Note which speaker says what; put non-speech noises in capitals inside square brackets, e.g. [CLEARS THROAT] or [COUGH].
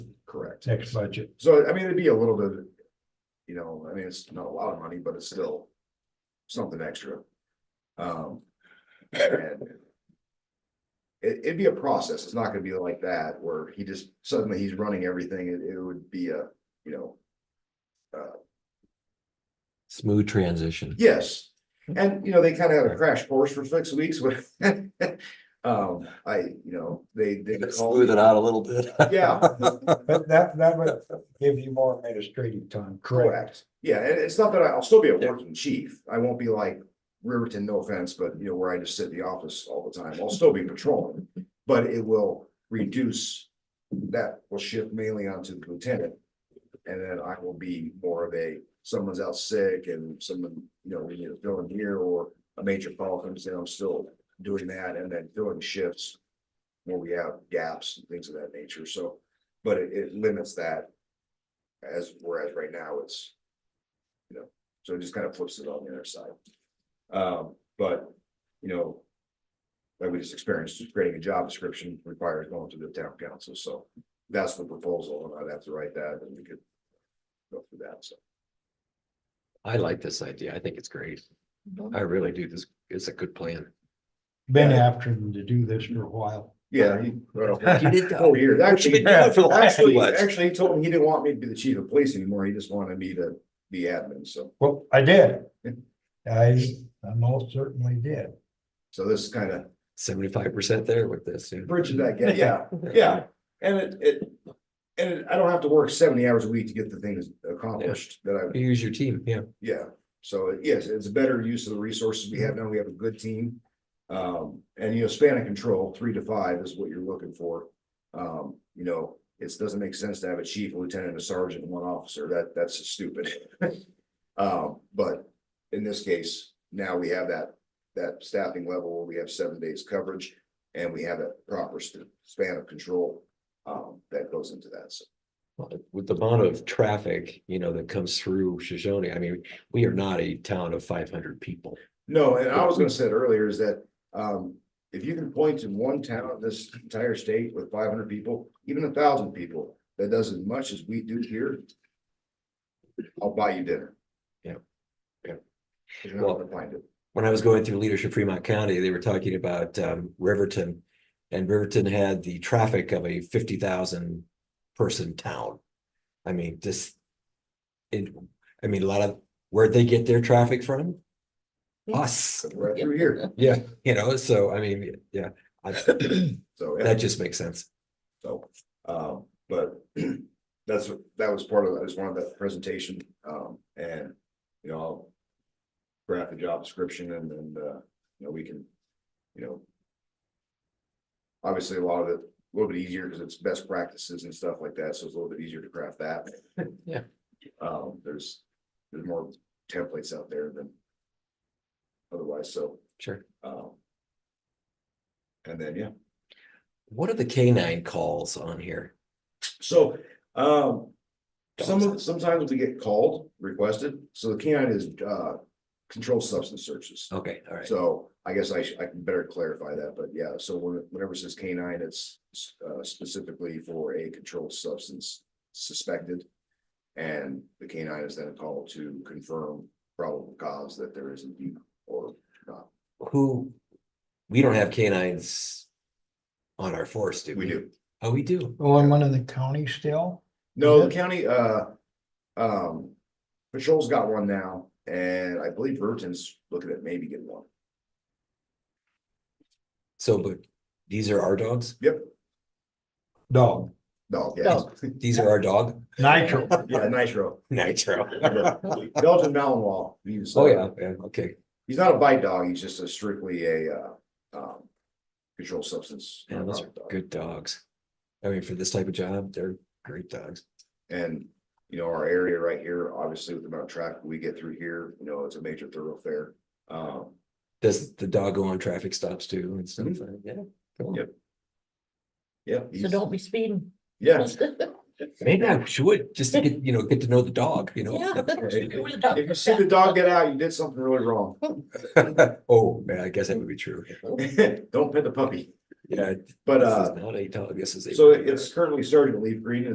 Speaker 1: correct.
Speaker 2: next budget.
Speaker 1: So, I mean, it'd be a little bit, you know, I mean, it's not a lot of money, but it's still something extra. Um. and It, it'd be a process. It's not gonna be like that where he just suddenly he's running everything. It, it would be a, you know,
Speaker 3: Smooth transition.
Speaker 1: yes. And, you know, they kind of had a crash course for six weeks with, [LAUGHS] um, I, you know, they, they.
Speaker 3: Smooth it out a little bit.
Speaker 1: [LAUGHS]
Speaker 3: [LAUGHS]
Speaker 1: Yeah.
Speaker 2: But that, that would give you more administrative time, correct?
Speaker 1: Correct. Yeah, and it's not that I- I'll still be a
Speaker 3: Yeah.
Speaker 1: working chief. I won't be like Riverton, no offense, but you know, where I just sit in the office all the time. I'll still be patrolling. But it will reduce, that will shift mainly onto the lieutenant. And then I will be more of a, someone's out sick and someone, you know, we need to fill in here or a major call comes in, I'm still doing that and then filling shifts. Where we have gaps and things of that nature, so, but it, it limits that. As, whereas right now it's. You know, so it just kind of flips it on the other side. Um, but, you know. Like we just experienced, creating a job description requires going to the town council, so that's the proposal, and I'd have to write that and we could. Go through that, so.
Speaker 3: I like this idea. I think it's great. I really do. This is a good plan.
Speaker 2: Been after them to do this for a while.
Speaker 1: Yeah. he- right off-
Speaker 3: You did that.
Speaker 1: Four years,
Speaker 3: You've been
Speaker 1: Oh, actually,
Speaker 3: doing it for the last few
Speaker 1: actually,
Speaker 3: months.
Speaker 1: actually, he told me he didn't want me to be the chief of police anymore, he just wanted me to be admin, so,
Speaker 2: Well, I did. I, I most certainly did.
Speaker 1: so this is kind of
Speaker 3: Seventy-five percent there with this. yeah.
Speaker 1: bridging that gap, yeah, [LAUGHS] yeah, and it, it. And it- I don't have to work seventy hours a week to get the things accomplished that I,
Speaker 3: You use your team, yeah.
Speaker 1: yeah, so yes, it's a better use of the resources we have now, we have a good team. Um, and you know, span of control, three to five is what you're looking for. Um, you know, it doesn't make sense to have a chief, a lieutenant, a sergeant, and one officer, that, that's just stupid. [LAUGHS] Um, but in this case, now we have that, that staffing level, where we have seven days coverage, and we have a proper sp- span of control. Um, that goes into that, so,
Speaker 3: Well, With the amount of traffic, you know, that comes through Shoshone, I mean, we are not a town of five hundred people.
Speaker 1: no, and I was gonna say earlier is that, um, if you can point to one town, in this entire state with five hundred people, even a thousand people. That does as much as we do here. I'll buy you dinner.
Speaker 3: Yeah. Yeah.
Speaker 1: You're not gonna find it,
Speaker 3: when I was going through leadership Fremont County, they were talking about um Riverton. And Riverton had the traffic of a fifty thousand person town. I mean, just. It, I mean, a lot of, where'd they get their traffic from? Us,
Speaker 1: right through here,
Speaker 3: yeah, you know, so I mean, yeah, I-
Speaker 1: so. yeah.
Speaker 3: that just makes sense.
Speaker 1: So, um, but [CLEARS THROAT] that's, that was part of, that was one of the presentation, um, and, you know, I'll. Graph the job description and, and, uh, you know, we can, you know. Obviously, a lot of it, a little bit easier because it's best practices and stuff like that, so it's a little bit easier to craft that.
Speaker 3: Yeah.
Speaker 1: Um, there's, there's more templates out there than. Otherwise, so,
Speaker 3: Sure.
Speaker 1: um. And then, yeah,
Speaker 3: What are the canine calls on here?
Speaker 1: so, um, some of, sometimes we get called, requested, so the canine is, uh, controlled substance searches.
Speaker 3: Okay, all right.
Speaker 1: So I guess I should, I can better clarify that, but yeah, so when- whenever it says canine, it's, uh, specifically for a controlled substance suspected. And the canine is then called to confirm probable cause that there is indeed, or,
Speaker 3: Who? We don't have canines. On our force, do we?
Speaker 1: we do.
Speaker 3: Oh, we do.
Speaker 2: Oh, I'm one of the county still?
Speaker 1: No, the
Speaker 2: Yeah.
Speaker 1: county, uh, um, patrol's got one now, and I believe Burton's looking at maybe getting one.
Speaker 3: So, but these are our dogs?
Speaker 1: Yep,
Speaker 2: Dog,
Speaker 1: no, yeah,
Speaker 3: No, these are our dog, [LAUGHS]
Speaker 2: nitro.
Speaker 1: [LAUGHS] yeah, Nitro.
Speaker 3: Nitro.
Speaker 1: Belgian Malinois. He's,
Speaker 3: Oh,
Speaker 1: uh,
Speaker 3: yeah, yeah, okay,
Speaker 1: He's not a bite dog, he's just a strictly a, uh, um, controlled substance.
Speaker 3: yeah, those are
Speaker 1: narcotic dog.
Speaker 3: good dogs. I mean, for this type of job, they're great dogs.
Speaker 1: And, you know, our area right here, obviously with the amount of traffic we get through here, you know, it's a major thoroughfare. Um,
Speaker 3: Does the dog go on traffic stops too and stuff? Yeah. cool.
Speaker 1: Mm-hmm. Yep. yeah.
Speaker 4: So
Speaker 1: he's-
Speaker 4: don't be speeding. [LAUGHS]
Speaker 1: Yeah.
Speaker 3: Maybe I should, just to get, you know, get to know the dog, you know?
Speaker 1: [LAUGHS] If you see the dog get out, you did something really wrong. [LAUGHS]
Speaker 3: [LAUGHS] Oh, man, I guess that would be true.
Speaker 1: Don't pet the puppy,
Speaker 3: Yeah.
Speaker 1: but,
Speaker 3: this is
Speaker 1: uh,
Speaker 3: Not a dog, this is a.
Speaker 1: so it's currently starting to leave green